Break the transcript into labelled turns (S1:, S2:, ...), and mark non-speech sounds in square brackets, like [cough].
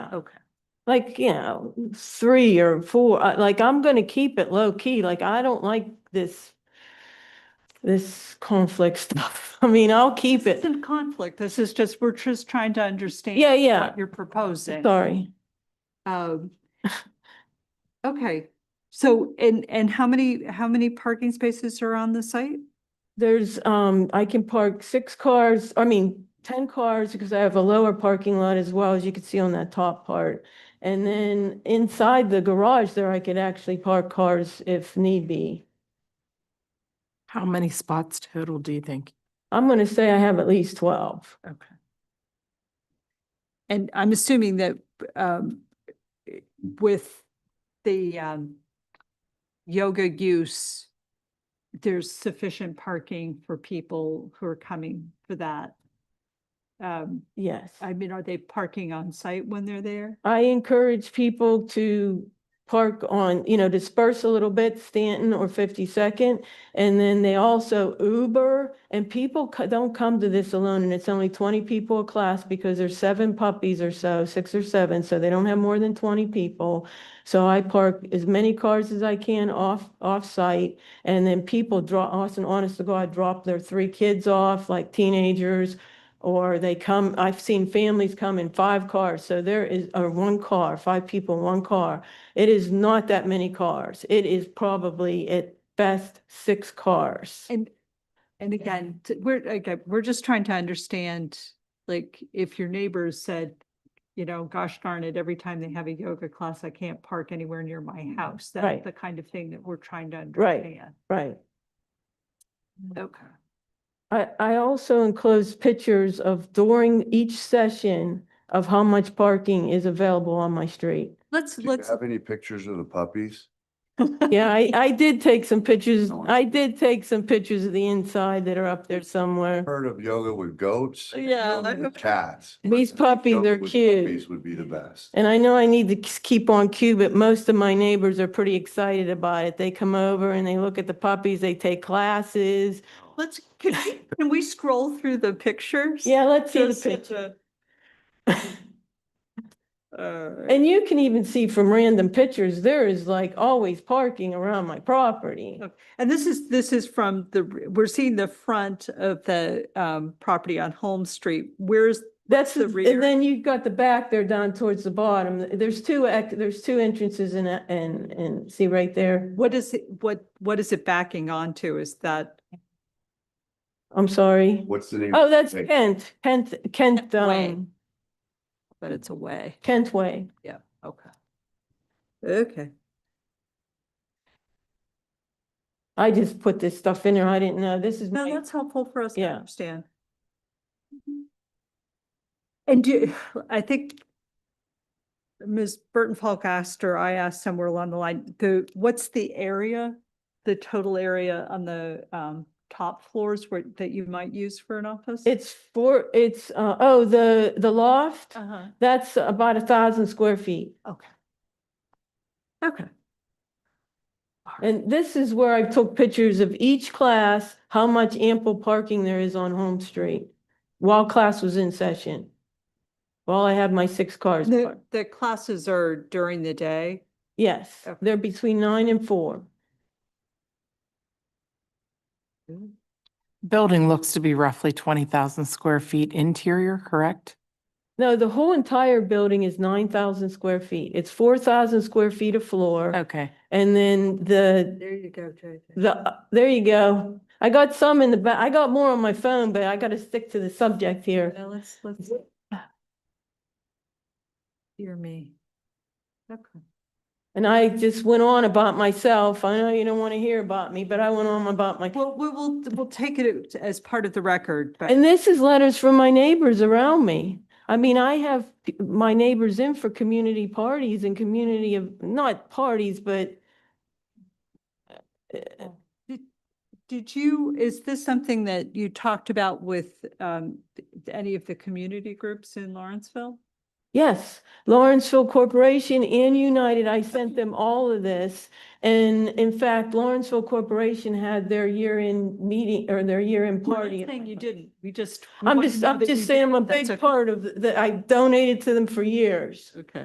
S1: Okay.
S2: like, you know, three or four, uh, like I'm gonna keep it low key, like I don't like this, this conflict [laughs] stuff. I mean, I'll keep it.
S1: It's in conflict. This is just, we're just trying to understand.
S2: Yeah, yeah,
S1: What you're proposing.
S2: sorry.
S1: Um, Okay, so and and how many, how many parking spaces are on the site?
S2: There's, um, I can park six cars, I mean, ten cars, because I have a lower parking lot as well, as you can see on that top part. And then inside the garage there, I could actually park cars if need be.
S3: How many spots total do you think?
S2: I'm gonna say I have at least twelve.
S1: Okay. And I'm assuming that um, with the um, yoga use, there's sufficient parking for people who are coming for that. Um,
S2: Yes.
S1: I mean, are they parking on site when they're there?
S2: I encourage people to park on, you know, disperse a little bit, Stanton or 52nd. And then they also Uber and people co- don't come to this alone and it's only 20 people a class because there's seven puppies or so, six or seven, so they don't have more than 20 people. So I park as many cars as I can off, off-site. And then people draw, honest, honest to God, drop their three kids off, like teenagers, or they come, I've seen families come in five cars, so there is, or one car, five people, in one car. It is not that many cars. It is probably at best six cars.
S1: And, and again, t- we're, again, we're just trying to understand, like, if your neighbors said, you know, gosh darn it, every time they have a yoga class, I can't park anywhere near my house. That's
S2: Mm, Right.
S1: the kind of thing that we're trying to
S2: Right. Mm.
S1: understand.
S2: Right.
S1: Okay.
S2: I, I also enclosed pictures of during each session of how much parking is available on my street.
S1: Let's,
S4: Do you
S1: let's,
S4: have any pictures of the puppies?
S2: Yeah, I, I did take some
S1: Oh,
S2: pictures,
S4: No.
S2: I did take some pictures of the inside that are up there somewhere.
S4: Heard of yoga with goats?
S2: Yeah,
S4: Yoga
S2: that-
S4: with Cats.
S2: These puppies
S4: Yoga
S2: are
S4: with
S2: cute.
S4: Puppies would be the best.
S2: And I know I need to k- keep on cue, but most of my neighbors are pretty excited about it. They come over and they look at the puppies, they take classes.
S1: let's, can
S2: [laughs]
S1: we- can we scroll through the pictures?
S2: Yeah, let's see the
S1: Just
S2: picture.
S1: to- [laughs] Alright.
S2: And you can even see from random pictures, there is like always parking around my property.
S1: And this is, this is from the, we're seeing the front of the um, property on Holmes Street. Where's
S2: That's,
S1: the
S2: the-
S1: rear?
S2: and then you've got the back there down towards the bottom. There's two, ex- there's two entrances and, a- and, and see right there.
S1: What is it, what, what is it backing onto? Is that,
S2: I'm sorry.
S4: What's the name?
S2: Oh, that's
S4: Hey.
S2: Kent, Kent, Kent,
S1: Kent Way.
S2: um,
S1: but it's away?
S2: Kent Way.
S1: Okay. Okay.
S2: I just put this stuff in there. I didn't know. This is
S1: No,
S2: my,
S1: that's helpful for us to
S2: Yeah.
S1: understand. And do, I think Ms. Burton Falk asked, or I asked somewhere along the line, the, what's the area? The total area on the um, top floors where, that you might use for an office?
S2: it's four, it's, uh, oh, the, the loft.
S1: Uh-huh,
S2: That's about a thousand square feet.
S1: okay. Okay. All right.
S2: And this is where I took pictures of each class, how much ample parking there is on Home Street while class was in session. While I had my six cars
S1: The,
S2: parked.
S1: the classes are during the day?
S2: Yes,
S1: Okay.
S2: they're between nine and four.
S3: Building looks to be roughly twenty thousand square feet interior, correct?
S2: No, the whole entire building is nine thousand square feet. It's four thousand square feet of floor.
S3: Okay.
S2: And then the
S1: There you go, JJ.
S2: The, there you go. I got some in the back. I got more on my phone, but I gotta stick to the subject here.
S1: Yeah, let's, let's. Dear me. Okay.
S2: And I just went on about myself. I know you don't want to hear about me, but I went on about my.
S1: Well, we will, we'll take it as part of the record, but.
S2: And this is letters from my neighbors around me. I mean, I have p- my neighbors in for community parties and community of, not parties, but uh,
S1: Did- Did you, is this something that you talked about with um, th- any of the community groups in Lawrenceville?
S2: Yes, Lawrenceville Corporation and United, I sent them all of this. And in fact, Lawrenceville Corporation had their year-end meeting or their year-end
S1: Well,
S2: party. at
S1: Thing
S2: my
S1: you
S2: place.
S1: didn't, we just.
S2: I'm
S1: wanna
S2: just,
S1: know
S2: I'm
S1: that you
S2: just saying I'm a
S1: did. That's
S2: big
S1: okay.
S2: part of, that I donated to them for years.
S1: Okay.